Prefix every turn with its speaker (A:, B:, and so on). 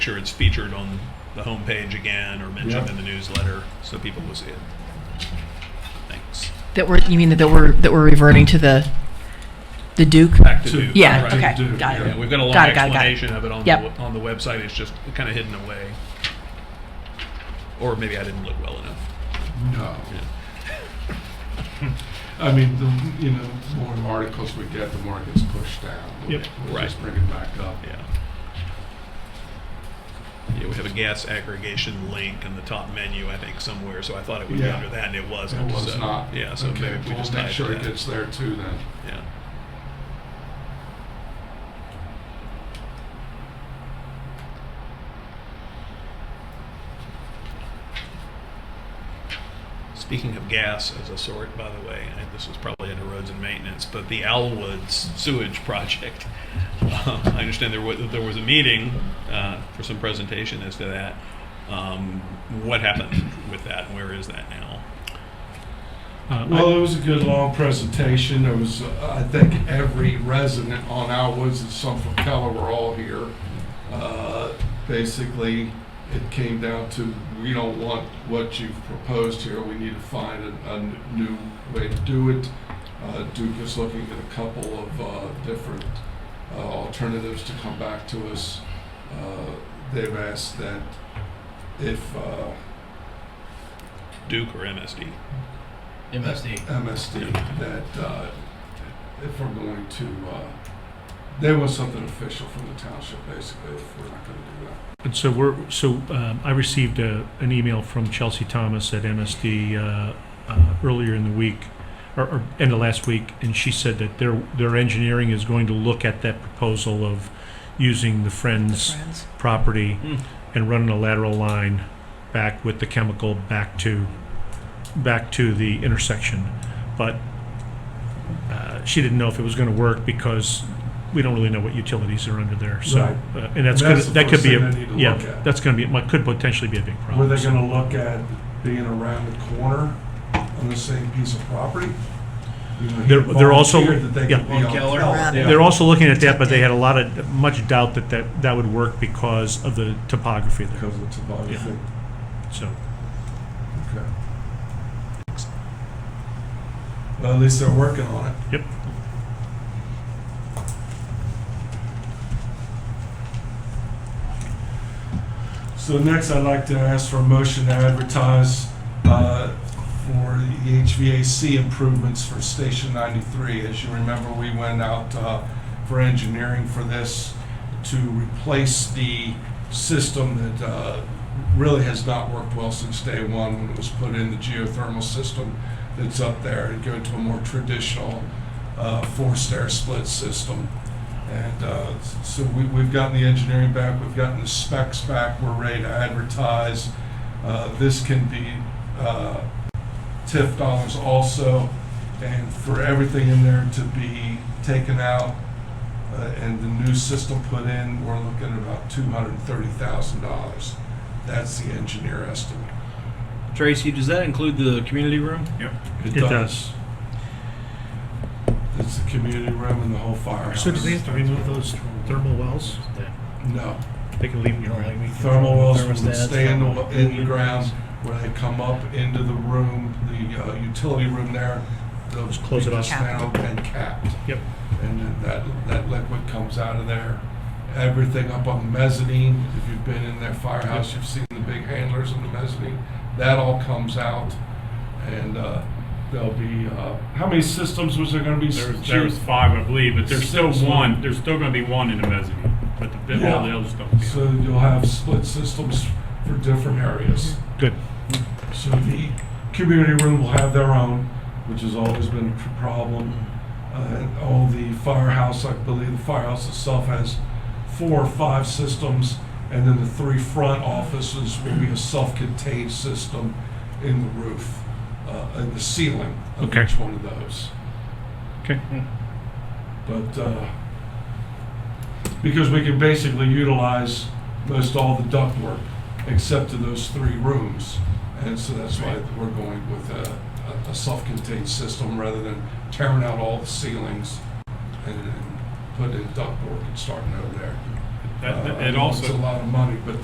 A: sure it's featured on the homepage again or mentioned
B: Yeah.
A: in the newsletter so people will see it. Thanks.
C: That we're, you mean that we're, that we're reverting to the, the Duke?
A: Back to
B: To-
A: Duke.
C: Yeah,
A: Right.
B: to
C: okay,
B: Duke,
C: got
A: Yeah,
C: it.
A: we've got a long
C: Got it, got it, got it.
A: explanation of it on the
C: Yep.
A: the on the website. It's just kind of hidden away, or maybe I didn't look well enough.
B: No. I mean, the, you know, the more articles we get, the more it gets pushed down.
A: Yep.
B: We'll just
A: Right.
B: bring it back up.
A: Yeah. Yeah, we have a gas aggregation link in the top menu, I think, somewhere. So I thought it would be
B: Yeah.
A: under that, and it wasn't.
B: It was
A: so,
B: not.
A: Yeah. So
B: Okay,
A: maybe we
B: we'll
A: just
B: make
A: tied
B: sure
A: to
B: it
A: that.
B: gets there too then.
A: Yeah. Speaking of gas as a sort, by the way, and this is probably under roads and maintenance, but the Alwoods sewage project. Uh, I understand there was, there was a meeting uh, for some presentation as to that. Um, what happened with that? and Where is that now?
D: Uh,
B: Well, it was a good long presentation. There was, uh, I think, every resident on Alwoods and some from Keller were all here. Uh, Basically, it came down to, we don't want what you've proposed here. We need to find a, a n- new way to do it. Uh, Duke is looking at a couple of uh, different uh, alternatives to come back to us. Uh, They've asked that if uh,
A: Duke or MSD?
E: MSD.
B: MSD that uh, if we're going to, uh, they want something official from the township, basically, if we're not going to do that.
D: And so we're, so um, I received a, an email from Chelsea Thomas at MSD uh, uh, earlier in the week, or, or end of last week, and she said that their, their engineering is going to look at that proposal of using the Friends
C: Friends.
D: property
A: Hmm.
D: and running a lateral line back with the chemical back to, back to the intersection. But uh, she didn't know if it was going to work because we don't really know what utilities are under there, so.
F: Right.
D: uh, And
F: That's
D: that's gonna-
F: the
D: that could
F: first
D: be,
F: thing
D: a-
F: they need to look
D: yeah,
F: at.
D: that's going to be, might- could potentially be a big
F: Were
D: problem.
F: they
D: so.
F: gonna look at being around the corner on the same piece of property? You know, he
D: They're- they're also-
F: volunteered that they
D: yeah.
F: could be on
E: Keller.
F: Keller.
E: Yeah.
D: They're also looking at that, but they had a lot of, much doubt that that, that would work because of the topography there,
F: Because of the topography.
D: so.
F: Okay. Well, at least they're working on it.
D: Yep.
F: So next, I'd like to ask for a motion to advertise uh, for the HVAC improvements for Station 93. As you remember, we went out uh, for engineering for this to replace the system that uh, really has not worked well since day one when it was put in, the geothermal system that's up there, and go to a more traditional uh, forced air split system. And uh, so we- we've gotten the engineering back, we've gotten the specs back, we're ready to advertise. Uh, This can be uh, TIF dollars also, and for everything in there to be taken out uh, and the new system put in, we're looking at about $230,000. That's the engineer estimate.
E: Tracy, does that include the community room?
D: It does.
F: It's the community room and the whole firehouse.
D: to remove those thermal wells?
F: No.
D: They can leave them
E: like me?
F: Thermal wells would
E: Thermostats,
F: stay in the,
E: thermal-
F: in the ground where they come up into the room, the uh, utility room there. They'll
D: Just close it
F: be
D: off.
F: dismantled And capped.
D: Yep.
F: And then that, that liquid comes out of there. Everything up on the mezzanine, if you've been in their firehouse, you've seen the big handlers on the mezzanine. That all comes out and uh, there'll be, uh, how many systems was there gonna be?
G: There was, there was five, I believe, but there's still
F: Six.
G: one, there's still gonna be one in the mezzanine, but the, all the
F: Yeah.
G: others don't.
F: So you'll have split systems for different areas.
D: Good.
F: So the community room will have their own, which has always been a tr- problem. Uh, and all the firehouse, I believe, the firehouse itself has four or five systems, and then the three front offices will be a self-contained system in the roof, uh, in the ceiling of
D: Okay.
F: each one of those.
D: Okay.
F: But, uh, because we can basically utilize most all the ductwork except to those three rooms. And so that's why we're going with a, a- a self-contained system rather than tearing out all the ceilings and then putting in ductwork and starting over there.
H: That,
F: Uh,
H: that-
F: I
H: it
F: know
H: also.
F: It's a lot of money, but